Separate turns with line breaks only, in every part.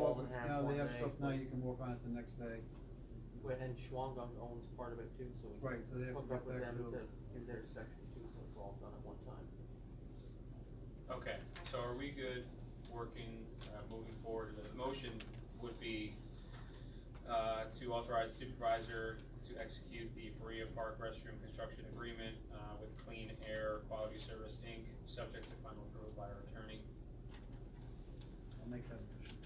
Doesn't have
No, they
one
have
day.
stuff now, you can work on it the next day.
But then Schwangdong owns part of it too, so we
Right,
can
so they have to
hook
get
up with
back
them
to-
to do their section too, so it's all done at one time.
Okay, so are we good working, uh, moving forward? The motion would be, uh, to authorize supervisor to execute the Berea Park restroom construction agreement, uh, with Clean Air Quality Service, Inc., subject to final approval by our attorney.
I'll make that official.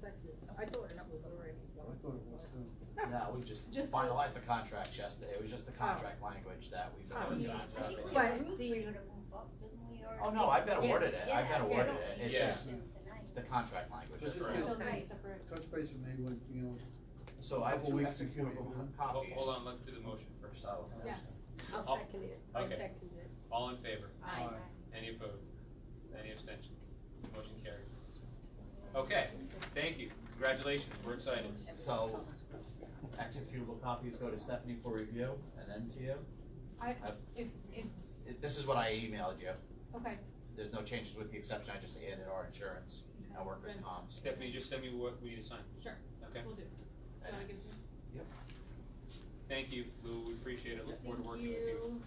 Second, I thought it was already.
I thought it was too.
No, we just
Just the-
finalized the contract yesterday, it was just the contract language that we
Oh,
finalized
yeah.
on stuff. in here.
But
We
the,
would've moved up, didn't we, or-
Oh, no, I've been
Yeah,
awarded it, I've been
yeah,
awarded
yeah.
it, it's
Yeah.
just
Tonight.
the contract language,
But
that's
just
right.
get-
So
Okay.
nice, approved.
Touch base with me when, you know,
So I have
Couple
two
weeks before you
executable
go home.
Hold,
copies.
hold on, let's do the motion first.
So-
yes,
Oh,
I'll second it, I
okay.
second it.
All in favor?
Aye. Aye.
Any opposed? Any abstentions? Motion carried. Okay, thank you. Congratulations, we're excited.
So, executable copies go to Stephanie for review and then to you.
I,
Have-
if, if,
It- This is what I emailed you,
okay.
there's no changes with the exception, I just added our insurance, our workers'
Yes.
comp.
Stephanie, just send me what we need to sign.
Sure.
Okay,
We'll do.
And
Wanna give it to me?
thank you, Lou, we appreciate it, look forward to
Thank
working with you.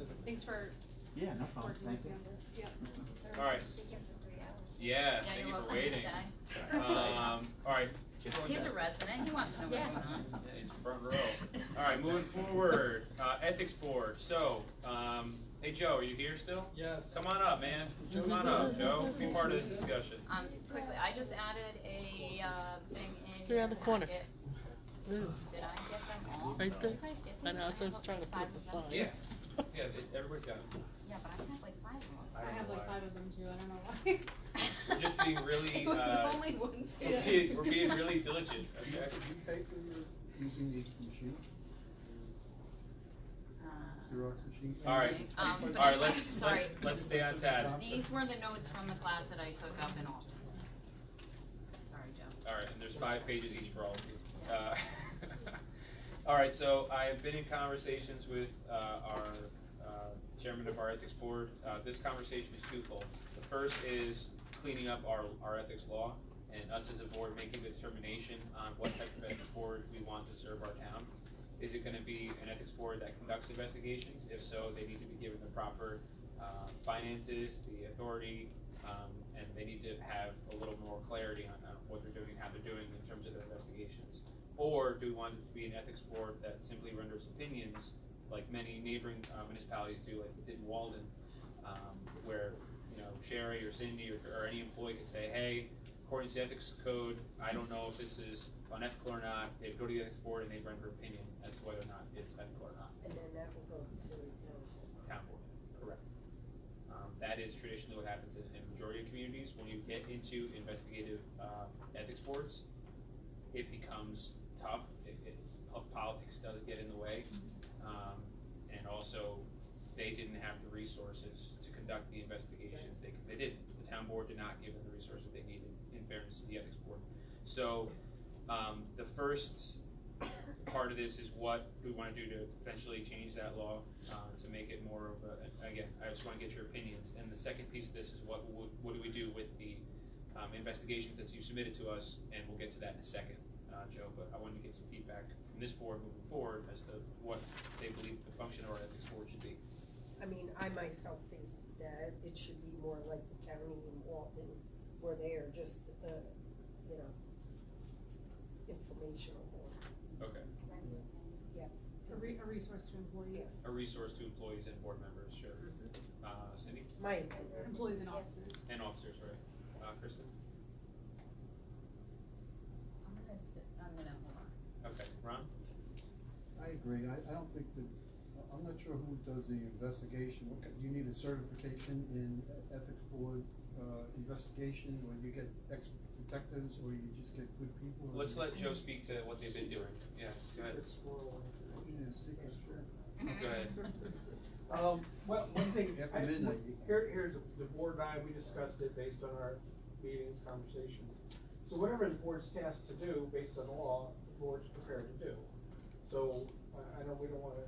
you. Thanks for
Yeah, no
working with me on this, yeah.
All right.
Sit here for three hours.
Yeah,
Yeah,
thank you
you're
for
welcome to
waiting.
stay.
Um, all right.
He's a resident, he wants to know what's
Yeah.
going on.
Yeah, he's front row. All right, moving forward, uh, ethics board, so, um, hey, Joe, are you here still?
Yes.
Come on up, man, come on up, Joe, be part of this discussion.
Um, quickly, I just added a, uh, thing in.
It's around the
your
corner.
packet.
Liz,
Did I get them all?
Right there.
Did you guys get
I know,
these?
that's what I was
have
trying to
like five
put
of them.
aside.
Yeah, yeah, it- everybody's got it.
Yeah, but I have like five of
I have like five of them too, I don't know why.
them.
We're just being really,
It was
uh,
only one
We're
page.
being, we're being really diligent, okay?
did you pay for your, using the machine,
Uh,
Xerox machine?
All right.
Um,
All
but
right,
anyway,
let's,
sorry.
let's, let's stay on task.
These were the notes from the class that I took up in Alton. Sorry, Joe.
All right, and there's five pages each for all of you. Uh, All right, so I have been in conversations with uh, our uh, chairman of our ethics board. Uh, This conversation is twofold. The first is cleaning up our, our ethics law and us as a board making the determination on what type of ethics board we want to serve our town. Is it gonna be an ethics board that conducts investigations? If so, they need to be given the proper uh, finances, the authority, um, and they need to have a little more clarity on uh, what they're doing, how they're doing in terms of their investigations. Or do we want it to be an ethics board that simply renders opinions, like many neighboring uh, municipalities do, like it did in Walden, um, where, you know, Sherry or Cindy or, or any employee could say, hey, according to the ethics code, I don't know if this is unethical or not, they'd go to the ethics board and they'd render opinion as to whether or not it's ethical or not
And then that will go to,
town board. Correct. Um, that is traditionally what happens in, in the majority of communities, when you get into investigative, um, ethics boards, it becomes tough, it, it, po- politics does get in the way. Um, and also, they didn't have the resources to conduct the investigations, they, they didn't, the town board did not give them the resources they needed in fairness to the ethics board. So, um, the first part of this is what we wanna do to potentially change that law, uh, to make it more of a, again, I just wanna get your opinions. And the second piece of this is what, what, what do we do with the, um, investigations that you submitted to us, and we'll get to that in a second, uh, Joe, but I wanted to get some feedback from this board moving forward as to what they believe the function of our ethics board should be.
I mean, I myself think that it should be more like the county in Walton, where they are just, uh, you know, informational board,
Okay.
yes.
a re, a resource to employees,
Yes.
A resource to employees and board members, sure. Uh, Cindy,
My opinion.
employees and
Yeah.
officers.
and officers, right? Uh, Kristen?
I'm gonna, t- I'm gonna, hold on.
Okay, Ron?
I agree, I, I don't think that, I- I'm not sure who does the investigation, What kind- you need a certification in e- ethics board, uh, investigation, or you get ex detectives, or you just get good people?
Let's let Joe speak to what they've been doing. Yeah, go
Yeah,
ahead.
secret service. Mm-hmm.
Go ahead.
Um, well, one thing,
After
I,
midnight.
here, here's, the board and I, we discussed it based on our meetings, conversations. So whatever the board's tasked to do, based on law, the board's prepared to do. So, I, I know we don't wanna,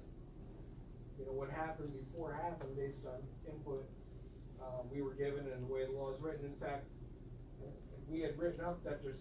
you know, what happened before happened based on input, uh, we were given and the way the law is written, in fact, I
we had written up that there's